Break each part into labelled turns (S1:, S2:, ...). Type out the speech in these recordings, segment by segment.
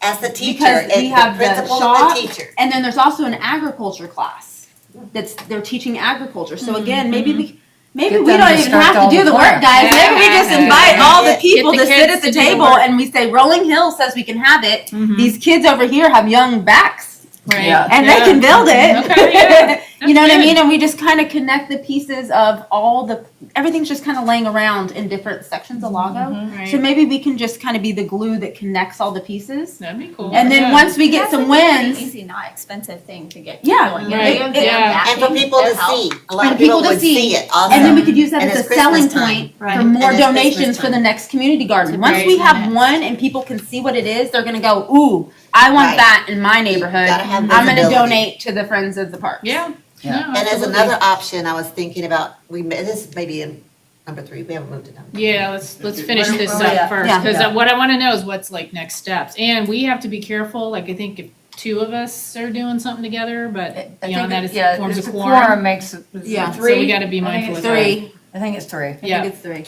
S1: as the teacher,
S2: Because we
S1: and
S2: have
S1: the
S2: the
S1: principal and
S2: shop,
S1: the teacher.
S2: And then there's also an agriculture class that's, they're teaching agriculture. So
S3: Mm-hmm,
S2: again, maybe we, maybe
S4: Get
S2: we
S4: them
S2: don't
S4: to
S2: even
S4: start
S2: have
S4: all
S2: to do
S4: the
S2: the work,
S4: work.
S2: guys. Maybe we just
S3: Yeah.
S2: invite all the
S1: Get
S2: people
S3: the
S2: to sit
S3: kids
S2: at the
S3: to do the
S2: table
S3: work.
S2: and we say, Rolling Hill says we can have it.
S3: Mm-hmm.
S2: These kids over here have young backs
S3: Right.
S4: Yeah.
S2: and they can build it.
S3: Okay, yeah.
S2: You know what I
S3: That's good.
S2: mean? And we just kind of connect the pieces of all the, everything's just kind of laying around in different sections of Lago.
S3: Mm-hmm.
S2: So
S3: Right.
S2: maybe we can just kind of be the glue that connects all the pieces.
S3: That'd be cool.
S2: And then
S3: Yeah.
S2: once we get some wins,
S5: Easy, not expensive thing to get.
S2: Yeah,
S5: going.
S3: right,
S5: They're
S3: yeah.
S1: And for
S5: backing
S1: people
S5: their
S1: to
S5: help.
S1: see, a lot
S2: And
S1: of people
S2: people to
S1: would
S2: see.
S1: see it also.
S2: and then we could use that
S1: And
S2: as a
S1: it's Christmas
S2: selling
S1: time.
S2: point
S4: Right.
S2: for more
S1: And it's
S2: donations
S1: Christmas
S2: for the
S1: time.
S2: next community garden.
S3: To
S2: Once we
S3: raise
S2: have
S3: money.
S2: one and people can see what it is, they're gonna go, ooh, I want
S1: Right.
S2: that in my
S1: Gotta
S2: neighborhood.
S1: have
S2: I'm gonna
S1: visibility.
S2: donate to the Friends of the Park.
S3: Yeah.
S4: Yeah.
S3: No,
S1: And as
S3: absolutely.
S1: another option, I was thinking about, we, ma- this may be in number three, we haven't moved to number.
S3: Yeah, let's, let's finish
S4: Where-
S3: this
S4: where
S3: up
S4: we at?
S3: first,
S2: Yeah.
S4: Yeah.
S3: because what I wanna know is what's like next steps, and we have to be careful, like, I think if two of us are doing something together,
S4: I
S3: but
S4: think,
S3: beyond that,
S4: it-
S3: it
S4: yeah,
S3: forms a
S4: it's a
S3: quorum.
S4: quorum makes, it- is
S2: Yeah.
S4: it
S2: So
S3: So we
S4: three?
S3: gotta be
S4: I think
S3: mindful
S4: it's
S3: of that.
S2: Three,
S4: I think it's three.
S2: I
S3: Yeah.
S2: think it's three.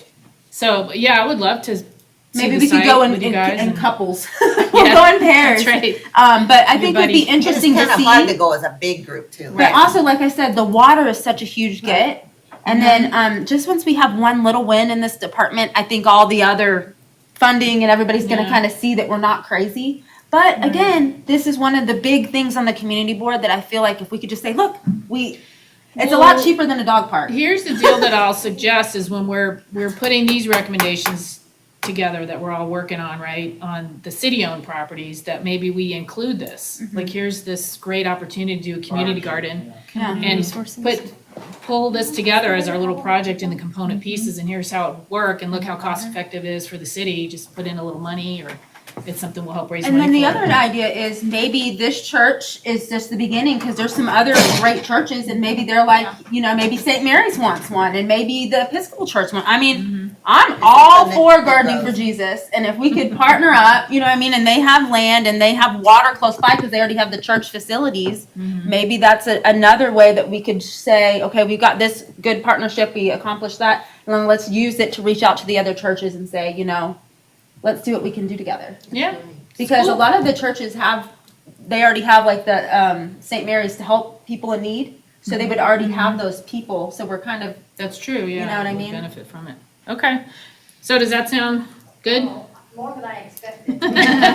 S3: So, yeah, I would love to see
S2: Maybe
S3: the
S2: we could
S3: site
S2: go in,
S3: with you
S2: in,
S3: guys
S2: in
S3: and-
S2: couples. We'll go in pairs.
S3: That's right.
S2: Um, but I think it'd
S3: Everybody-
S2: be interesting to
S1: It's kind
S2: see.
S1: of hard to go as a big group too.
S2: But also, like I said, the water is such a huge get. And then um, just once we have one little win in this department, I think all the other funding and everybody's going to
S3: Yeah.
S2: kind of see that we're not crazy. But again, this is one of the big things on the community board that I feel like if we could just say, look, we, it's a lot
S3: Well-
S2: cheaper than a dog park.
S3: Here's the deal that I'll suggest is when we're, we're putting these recommendations together that we're all working on, right? On the city-owned properties, that maybe we include this.
S2: Mm-hmm.
S3: Like, here's this great opportunity to do a community garden
S2: Yeah.
S3: and put, pull this together as our little project in the
S2: Mm-hmm.
S3: component pieces and here's how it would work and look how cost-effective it is for the city. Just put in a little money or it's something we'll help raise money
S2: And
S3: for.
S2: then the other idea is maybe this church is just the beginning because there's some other great churches and maybe they're like, you know, maybe St. Mary's wants one and maybe the Episcopal Church one. I mean, I'm all
S1: something
S2: for
S1: that
S2: gardening
S1: grows.
S2: for Jesus. And if we could partner up, you know what I mean, and they have land and they have water close by because they already have the church facilities, maybe that's a, another way that we could say, okay, we've got this good partnership, we accomplished that, and then let's use it to reach out to the other churches and say, you know, let's do what we can do together
S3: Yeah,
S2: because a lot of the churches have they already have like the um, st mary's to help people in need so they would already have those people so we're kind of
S3: that's true, yeah.
S2: know what I
S3: we'll
S2: mean?
S3: Benefit from it. Okay. So does that sound good?
S6: More than I expected.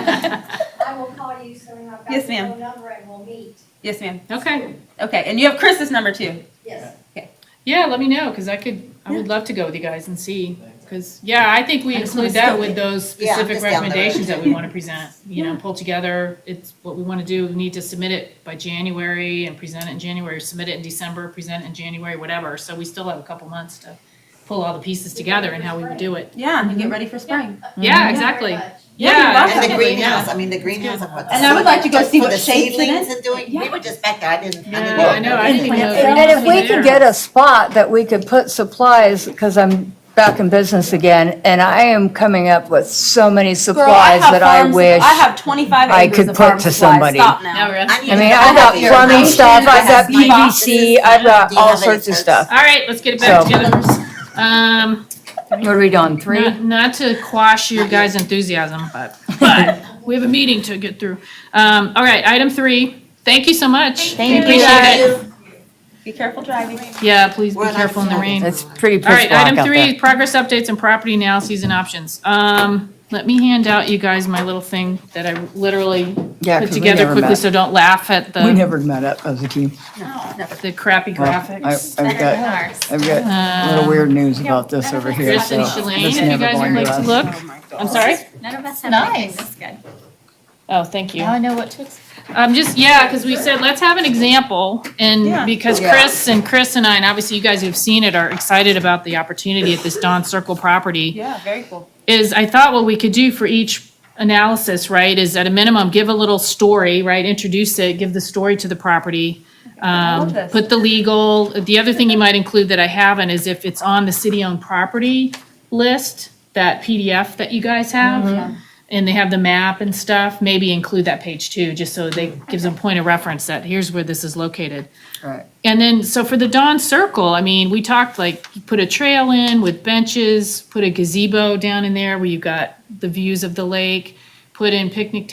S6: I will call you soon. I've got
S2: Yes,
S6: your
S2: ma'am.
S6: phone number and we'll meet.
S2: yes ma'am
S3: Okay.
S2: okay and you have chris's number too
S6: Yes.
S3: Yeah, let me know, because I could, I would love to go with you guys and see, because, yeah, I think we
S2: I just wanna
S3: include that
S2: scope
S3: with
S2: it.
S3: those
S1: Yeah,
S3: specific
S1: just down the road.
S3: recommendations that we want to present. You know, pull together, it's what we want to do, we need to submit it by January and present it in January, submit it in December, present it in January, whatever. So we still have a couple months to pull all the pieces together and how we would do it.
S2: yeah and get ready for spring
S3: Yeah,
S6: Thank you very
S3: exactly.
S6: much.
S2: Yeah,
S3: Yeah.
S2: that's
S1: And the
S3: absolutely, yeah.
S1: greenhouse, I mean, the greenhouse. of what the
S2: And I would like to go
S1: seed-
S2: see
S1: for
S2: what
S1: the
S2: shapes it
S1: seedlings
S2: is.
S1: and doing, we
S2: Yeah.
S1: were just back there, I didn't, I didn't.
S3: Yeah, I know, I didn't even know.
S4: And and if we could get a spot that we could put supplies, because I'm back in business again, and I am coming up with so many supplies that I
S2: farm-
S4: wish.
S2: i have 25
S4: I
S2: acres
S4: could
S2: of
S4: put
S2: farm
S4: to
S2: supplies.
S4: somebody.
S2: Stop now.
S3: No, really?
S1: need
S4: I
S1: to
S4: mean,
S1: go
S4: I've
S1: back
S4: got
S1: to your
S4: plumbing
S1: house.
S4: stuff, I've got
S1: Do you have any
S4: PVC, I've got
S1: boxes?
S4: all sorts of stuff.
S3: All right, let's get it back
S4: So-
S3: together. Um,
S4: What are we doing, three?
S3: Not, not to quash your guys' enthusiasm, but, but we have a meeting to get through. Um, all right, item three, thank you so much.
S4: Thank you.
S3: Appreciate it.
S2: be careful driving
S3: Yeah, please be
S1: We're not
S3: careful in the rain.
S4: It's pretty
S3: All
S4: pitch
S3: right,
S4: black
S3: item
S4: out there.
S3: three, progress updates and property analyses and options. Um, let me hand out you guys my little thing that I literally
S4: Yeah,
S3: put
S4: 'cause we
S3: together
S4: never
S3: quickly,
S4: met.
S3: so don't laugh at
S4: We
S3: the,
S4: never met up as a team.
S2: no, no.
S3: the crappy
S4: Well, I-
S3: graphics.
S4: I've
S5: Better than
S4: got,
S5: ours.
S4: I've got a
S3: Um,
S4: little weird news about this over here,
S3: Chris
S4: so.
S3: and
S4: it's
S3: Shalane, if you
S4: never
S3: guys would
S4: going
S3: like to
S4: us.
S3: look,
S2: Oh my God.
S3: I'm sorry?
S5: None of us have
S3: Nice.
S5: anything this good.
S3: Oh, thank you.
S5: Now I know what to expect.
S3: Um, just, yeah, because we said, let's have an example,
S2: Yeah.
S3: and because
S1: Yeah.
S3: Chris and Chris and I, and obviously you guys who've seen it, are excited about the opportunity at this Don Circle property,
S2: yeah very cool
S3: is I thought what we could do for each analysis, right, is at a minimum, give a little story, right, introduce it, give the story to the property. Um,
S2: love this.
S3: put the legal, the other thing you might include that I haven't is if it's on the city-owned property list, that PDF that you guys have
S2: Mm-hmm.
S3: and they have the map and stuff, maybe include that page too, just so they, gives them point of reference that here's where this is located.
S4: Right.
S3: And then, so for the Dawn Circle, I mean, we talked like, you put a trail in with benches, put a gazebo down in there where you've got the views of the lake, put in picnic